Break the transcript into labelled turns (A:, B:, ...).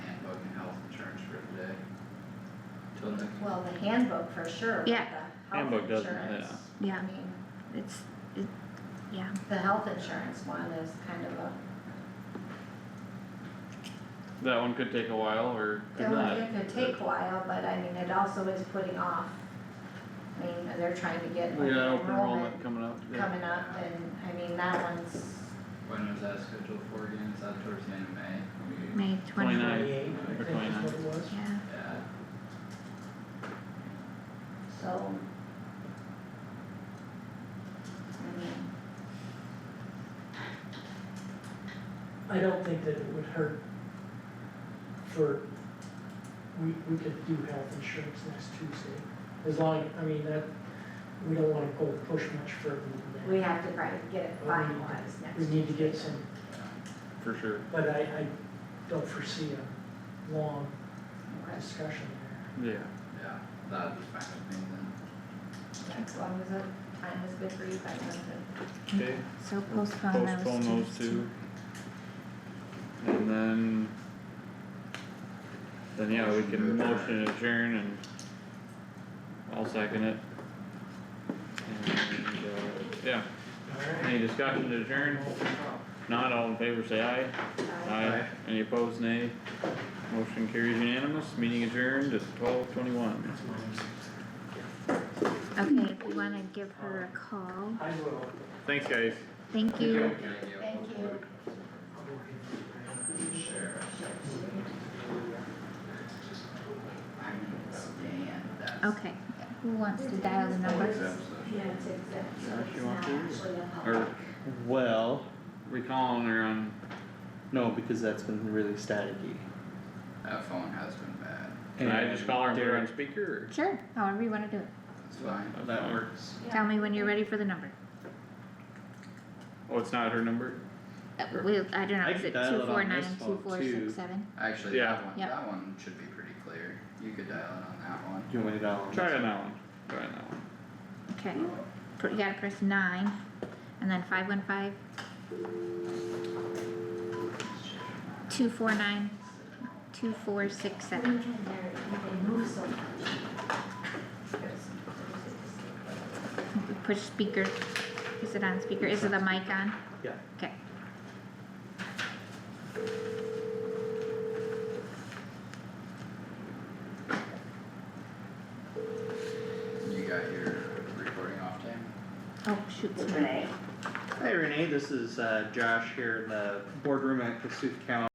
A: well, the handbook for sure, but the
B: Yeah.
A: health
C: Handbook doesn't,
A: insurance,
B: yeah.
A: I mean,
B: It's, it, yeah,
A: the health insurance one is kind of a,
C: That one could take a while or could
A: that one,
C: not.
A: it could take a while, but I mean, it also is putting off. I mean, they're trying to get
C: We
A: like
C: got open
A: enrollment
C: enrollment coming up. yeah.
A: coming up and, I mean, that one's,
D: When was that scheduled for again? Is that towards the end of
E: Mm-hmm.
D: May?
B: May twenty.
C: 29.
F: Twenty-eight, I
C: Or
F: think is what it was.
B: Yeah,
D: Yeah,
A: so. I mean,
F: I don't think that it would hurt for, we, we could do health insurance next Tuesday. As long, I mean, that, we don't wanna go push much further than
A: we
F: that.
A: have to probably get it
F: Well, we need to-
A: finalized next.
F: We need to get
A: week.
F: some,
C: For sure.
F: but I, I don't foresee a long
A: Okay,
F: discussion there.
C: Yeah.
D: yeah, that'd be fine with me then.
A: yeah, As long as the time is good for you, guys, that's it.
C: Okay.
B: so postpone those two.
C: Postpone those two. And then. Then yeah, we can motion adjourn and I'll second it. And, uh, yeah,
F: Alright.
C: any discussion to adjourn? Not all in favor, say aye. Aye. Any opposed, nay? Motion carries unanimous, meeting adjourned at twelve twenty-one.
B: Okay, if you wanna give her a call,
F: I will.
C: Thanks, guys.
B: thank you.
A: Thank you.
F: I'll go ahead and-
D: Sure. I mean, it's Dan, that's.
B: Okay, who wants to dial the number?
A: Yeah, it's exact, so
C: Or if
A: it's
C: you
A: not
C: want to,
A: actually a
C: Or,
A: public.
E: Well,
C: we calling her on,
E: no, because that's been really staticky.
D: That phone has been bad,
C: can I just call her and put her on
E: Derek,
C: speaker
B: Sure, however you wanna do it.
D: it's fine.
C: or?
E: that works.
B: Tell me when you're ready for the number.
C: Oh, it's not her number?
B: Uh, We'll, I don't know,
E: I
B: is
E: can
B: it
E: dial it
B: two
E: on
B: four nine,
E: this
B: two
E: phone,
B: four
E: too.
B: six seven?
D: Actually,
C: Yeah.
D: that one,
B: Yep.
D: that one should be pretty clear, you could dial it on that one.
E: Do you want me to dial on
C: Try
E: this?
C: on that one, try on that one.
B: Okay, Pr- you gotta press nine, and then five one five. Two four nine, two four six seven.
A: Even there, they move so much. There's-
B: Push speaker, is it on speaker, is it the mic on?
E: Yeah.
B: Okay.
D: You got your recording off, Tim?
B: Oh, shoot, sorry.
E: Hi Renee, this is uh, Josh here in the boardroom at Kasuth County.